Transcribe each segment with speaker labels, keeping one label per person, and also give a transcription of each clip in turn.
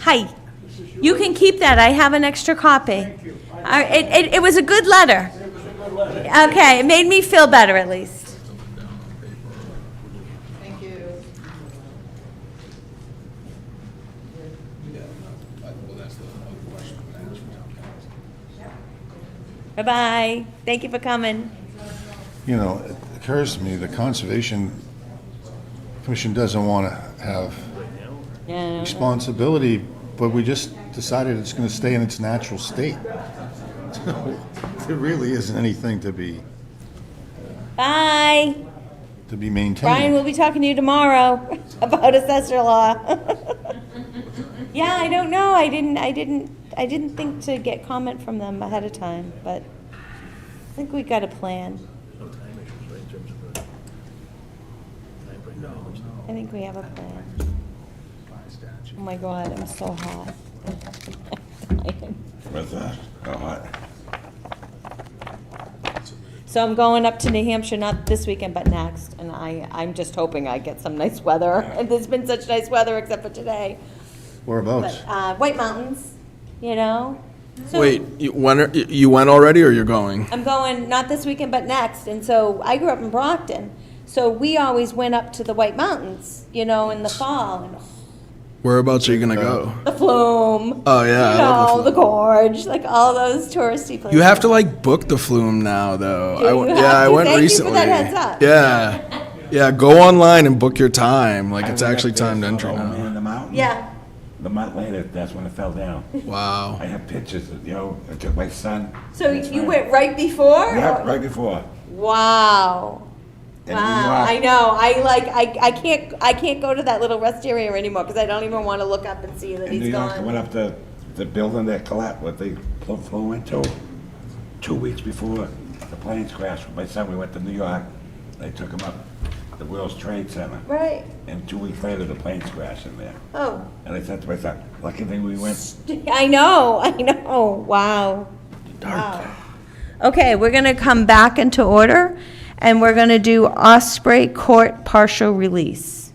Speaker 1: Hi. You can keep that. I have an extra copy. Thank you. It, it, it was a good letter. Okay, it made me feel better at least.
Speaker 2: Thank you.
Speaker 1: Bye-bye. Thank you for coming.
Speaker 3: You know, it occurs to me, the Conservation Commission doesn't want to have responsibility, but we just decided it's going to stay in its natural state. So, There really isn't anything to be,
Speaker 1: Bye.
Speaker 3: to
Speaker 1: Brian will
Speaker 3: be maintained.
Speaker 1: be talking to you tomorrow about assessor law. Yeah, I don't know. I didn't, I didn't, I didn't think to get comment from them ahead of time, but I think we got a plan.
Speaker 4: No time issues, right, in terms of the time frame? No.
Speaker 1: I think we have a plan. Oh my god, I'm so hot.
Speaker 5: With uh, that, all right.
Speaker 1: So I'm going up to New Hampshire, not this weekend, but next, and I, I'm just hoping I get some nice weather. And there's been such nice weather except for today.
Speaker 3: Whereabouts?
Speaker 1: But, uh, White Mountains, you know? So
Speaker 6: Wait, you went, you- you went already or you're going?
Speaker 1: I'm going, not this weekend, but next, and so I grew up in Brockton. So we always went up to the White Mountains, you know, in the fall, and oh,
Speaker 6: Whereabouts are you gonna go?
Speaker 1: the flume.
Speaker 6: Oh, yeah,
Speaker 1: You
Speaker 6: I love
Speaker 1: know,
Speaker 6: the
Speaker 1: the gorge, like all those touristy places.
Speaker 6: You have to like book the flume now though.
Speaker 1: Do
Speaker 6: I went-
Speaker 1: you
Speaker 6: yeah,
Speaker 1: have
Speaker 6: I
Speaker 1: to?
Speaker 6: went
Speaker 1: Thank you for
Speaker 6: recently.
Speaker 1: that heads up.
Speaker 6: Yeah. Yeah, go online and book your time. Like it's actually timed entry
Speaker 5: Oh, man,
Speaker 6: now.
Speaker 5: the mountain?
Speaker 1: Yeah.
Speaker 5: The month later, that's when it fell down.
Speaker 6: Wow.
Speaker 5: I have pictures of, you know, I took my son.
Speaker 1: So
Speaker 5: and his
Speaker 1: you
Speaker 5: friend.
Speaker 1: went right before?
Speaker 5: Yeah, right before.
Speaker 1: Wow.
Speaker 5: And
Speaker 1: Wow,
Speaker 5: we
Speaker 1: I
Speaker 5: walked-
Speaker 1: know. I like. I, I can't. I can't go to that little rest area anymore because I don't even want to look up and see that
Speaker 5: In New
Speaker 1: he's
Speaker 5: York, I went
Speaker 1: gone.
Speaker 5: up to the building that collapsed, what they flew- flew into, two weeks before the planes crashed with my son. We went to New York. They took him up the World Trade Center.
Speaker 1: Right.
Speaker 5: And two weeks later, the planes crashed in there.
Speaker 1: Oh,
Speaker 5: And I said to my son, lucky thing we went.
Speaker 1: I know. I know. Wow. Wow. Okay, we're gonna come back into order, and we're gonna do Osprey Court partial release,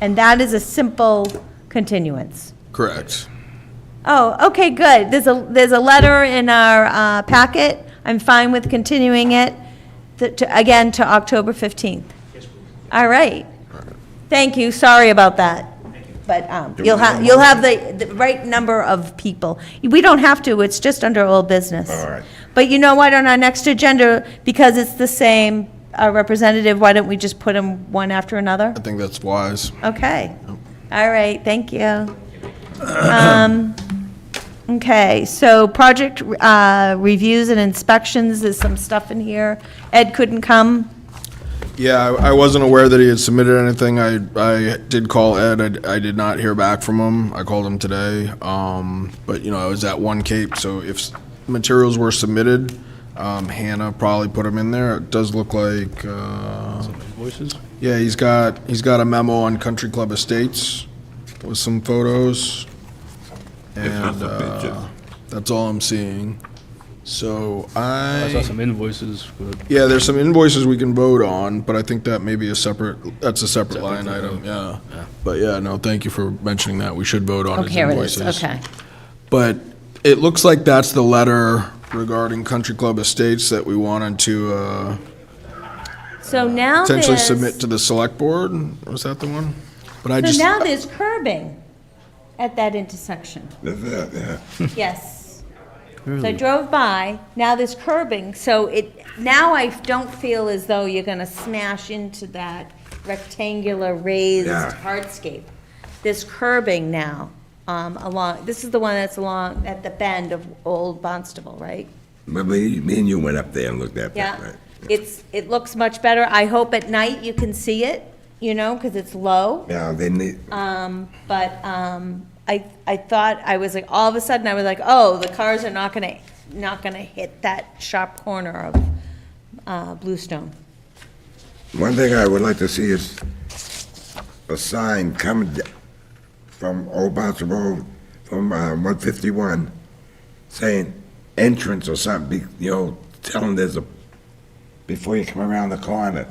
Speaker 1: and that is a simple continuance.
Speaker 6: Correct.
Speaker 1: Oh, okay, good. There's a, there's a letter in our uh, packet. I'm fine with continuing it, th- to- again, to October 15th. All right. Thank you, sorry about that. But um,
Speaker 5: we
Speaker 1: you'll
Speaker 5: have
Speaker 1: have,
Speaker 5: a
Speaker 1: you'll have the, the right number of people. We don't have to, it's just under old business.
Speaker 5: All right.
Speaker 1: But you know what, on our next agenda, because it's the same uh, representative, why don't we just put them one after another?
Speaker 6: I think that's wise.
Speaker 1: Okay. All right, thank you. Um, Okay, so project uh, reviews and inspections, there's some stuff in here. Ed couldn't come.
Speaker 6: Yeah, I, I wasn't aware that he had submitted anything. I, I did call Ed. I, d- I did not hear back from him. I called him today. Um, but you know, I was at One Cape, so if s- materials were submitted, um, Hannah probably put them in there. It does look like, uh,
Speaker 4: Voices?
Speaker 6: yeah, he's got, he's got a memo on Country Club Estates with some photos. And, uh, that's all I'm seeing. So I.
Speaker 4: I saw some invoices, but
Speaker 6: Yeah, there's some invoices we can vote on, but I think that may be a separate, that's a separate line item, yeah. But yeah, no, thank you for mentioning that. We should vote on his invoices. But it looks like that's the letter regarding Country Club Estates that we wanted to uh,
Speaker 1: So now there's,
Speaker 6: potentially submit
Speaker 1: so
Speaker 6: to the select board. Was that the one? But I just,
Speaker 1: now there's curbing at that intersection.
Speaker 5: That's it, yeah.
Speaker 1: Yes. So I drove by, now there's curbing, so it, now I don't feel as though you're gonna smash into that rectangular raised
Speaker 5: Yeah.
Speaker 1: hardscape. There's curbing now, um, along, this is the one that's along, at the bend of Old Bonstable, right?
Speaker 5: Remember, you- me and you went up there and looked at that,
Speaker 1: Yeah,
Speaker 5: right?
Speaker 1: it's, it looks much better, I hope at night you can see it, you know, because it's low.
Speaker 5: Yeah, they need,
Speaker 1: Um, but, um, I, I thought, I was like, all of a sudden, I was like, oh, the cars are not gonna, not gonna hit that sharp corner of, uh, Bluestone.
Speaker 5: One thing I would like to see is a sign coming d- from Old Bouncer Road, from uh, 151, saying entrance or something, be- you know, telling there's a, before you come around the corner,